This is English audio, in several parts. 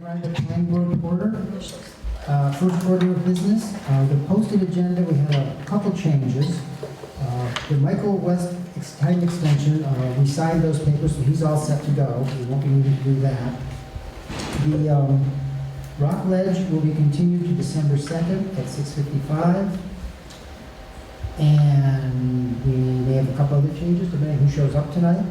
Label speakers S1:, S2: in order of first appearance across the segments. S1: Bring the planning board to order. Uh, First order of business, uh, the posted agenda, we had a couple changes. Uh, The Michael West ex- time extension, uh, we signed those papers, so he's all set to go. We won't be needing to do that. The um, Rock Ledge will be continued to December 2nd at 6:55. And we may have a couple other changes, depending who shows up tonight.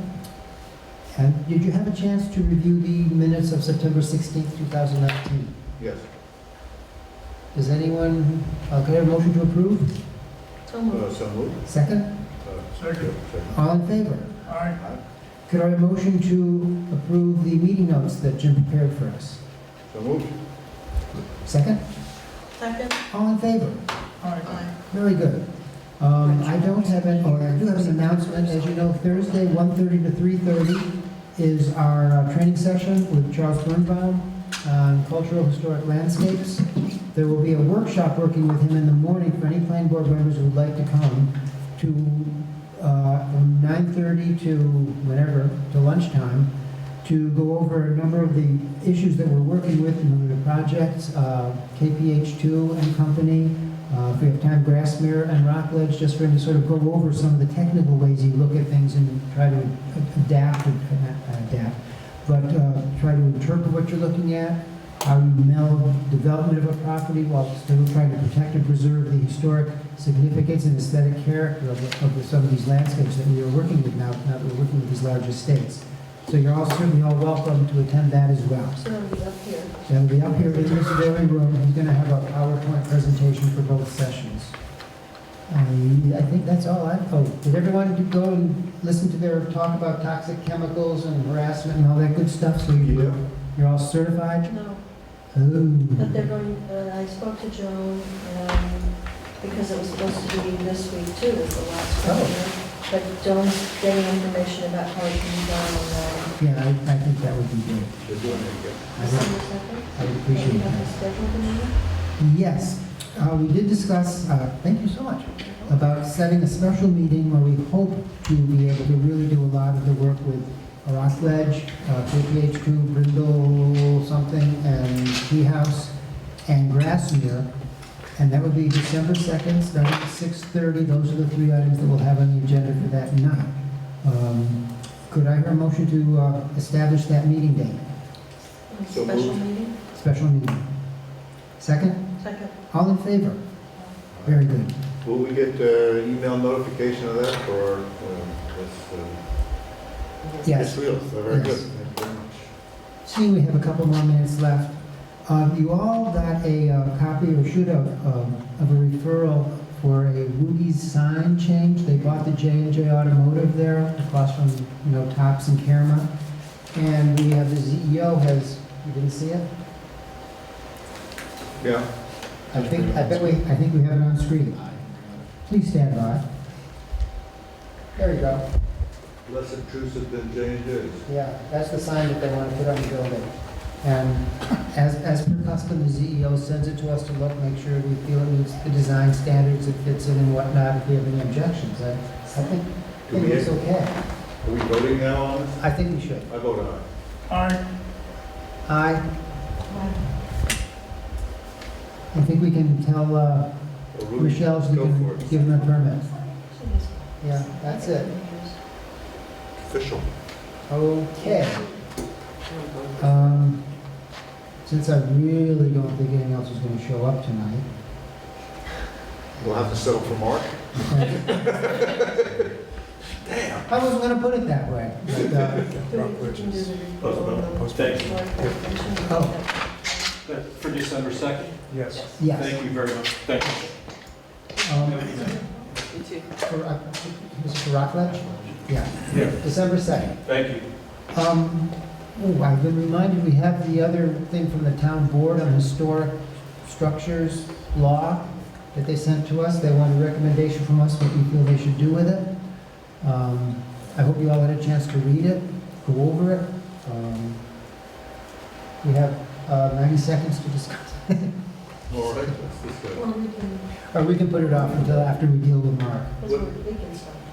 S1: And did you have a chance to review the minutes of September 16th, 2019?
S2: Yes.
S1: Does anyone, uh, could I have a motion to approve?
S3: So
S2: Uh, So moved.
S1: Second?
S2: Second.
S1: All in favor?
S2: Aye.
S1: Could I have a motion to approve the meeting notes that Jim prepared for us?
S2: So moved.
S1: Second?
S3: Second?
S1: All in favor?
S3: Aye.
S1: Very good. Um, I don't have any, or I do have an announcement, as you know, Thursday, 1:30 to 3:30 is our uh, training session with Charles Birnbaum on cultural historic landscapes. There will be a workshop working with him in the morning for any planning board members who would like to come to, uh, from 9:30 to whenever, to lunchtime, to go over a number of the issues that we're working with, a number of projects, uh, KPH2 and company, uh, If we have time, Grassmere and Rockledge, just for him to sort of go over some of the technical ways you look at things and try to adapt, and- uh, not adapt, but uh, try to interpret what you're looking at, how you meld development of a property while still trying to protect and preserve the historic significance and aesthetic character of the- of the- some of these landscapes that we are working with now, now that we're working with these large estates. So you're all certainly all welcome to attend that as well.
S3: So it'll be up here.
S1: They'll be up here in this very room, he's gonna have a PowerPoint presentation for both sessions. Um, I think that's all I, oh, did everyone do- go and listen to their talk about toxic chemicals and harassment and all that good stuff, so you-
S2: Yeah.
S1: you're all certified?
S3: No, but
S1: Ooh,
S3: they're going, uh, I spoke to Joan, um, because it was supposed to be this week too, was the last
S1: Oh.
S3: one. But Joan's getting information about how it can be done uh, online.
S1: yeah, I, I think that would be good.
S2: They're doing it again.
S1: I would-
S3: December second?
S1: I would appreciate
S3: Have
S1: that.
S3: a schedule for me?
S1: Yes, uh, we did discuss, uh, thank you so much, about setting a special meeting where we hope to be able to really do a lot of the work with Rock Ledge, uh, KPH2, Brindle something, and Tea House, and Grassmere. And that would be December 2nd, starting at 6:30. Those are the three items that we'll have on the agenda for that night. Um, Could I hear a motion to uh, establish that meeting date,
S3: A
S2: So
S3: Special
S2: moved.
S3: meeting?
S1: special meeting? Second?
S3: Second.
S1: All in favor? Very good.
S2: Will we get uh, email notification of that or? um, that's, uh, It's
S1: Yes.
S2: real, so very good.
S1: Yes.
S2: Thank you very much.
S1: See, we have a couple more minutes left. Uh, You all got a uh, copy, or should have, um, of a referral for a Woogie's sign change. They bought the j and J Automotive there, across from, you know, Tops and Karama. And we have the CEO has, you didn't see it?
S2: Yeah,
S1: I think, I bet we, I think we have it on screen. Please stand by. There you go.
S2: less obtrusive than J and J's.
S1: Yeah, that's the sign that they want to put on the building. And as, as per custom, the CEO sends it to us to look, make sure we feel it meets the design standards, it fits in and whatnot, if we have any objections. I, I think, I
S2: Do
S1: think
S2: we,
S1: it's
S2: are
S1: okay.
S2: we voting now on this?
S1: I think we should.
S2: I vote aye.
S1: I, I think we can tell uh,
S2: Or Rudy,
S1: Michelle she
S2: Go
S1: can
S2: for it.
S1: give them a permit. Yeah, that's it.
S2: Official.
S1: Okay. Um, Since I really don't think anyone else is going to show up tonight,
S2: We'll have to settle for Mark.
S1: I wasn't gonna put it that way, but, uh, Oh.
S4: That- For December 2nd?
S5: Yes.
S1: yes.
S4: Thank you very much. Thank you.
S1: Um, for, uh, Mr. Rockledge? Yeah.
S4: Yeah.
S1: December second.
S4: Thank you.
S1: Um, ooh, I've been reminded, we have the other thing from the town board on historic structures law that they sent to us. They want a recommendation from us, what we feel they should do with it. Um, I hope you all had a chance to read it, go over it. Um, We have uh, 90 seconds to discuss.
S2: All right, let's just, uh,
S3: Well, we can,
S1: Or we can put it off until after we deal with Mark.
S3: that's what we can start.